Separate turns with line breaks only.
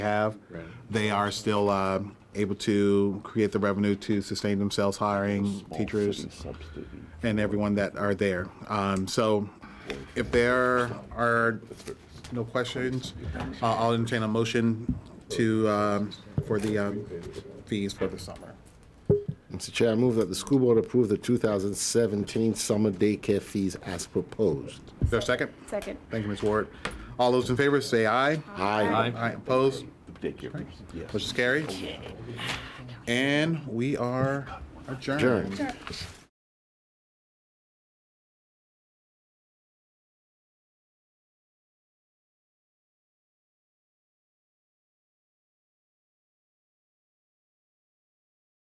have.
Right.
They are still uh, able to create the revenue to sustain themselves hiring teachers and everyone that are there. Um, So if there are no questions, uh, I'll entertain a motion to, um, for the um, fees for the summer.
Mr. Chair, I move that the school board approve the 2017 summer daycare fees as proposed.
Is there a second?
Second.
Thank you, Ms. Ward. All those in favor, say aye.
Aye.
Aye, opposed?
Daycare, yes.
Motion is carried. And we are adjourned.
Adjourned.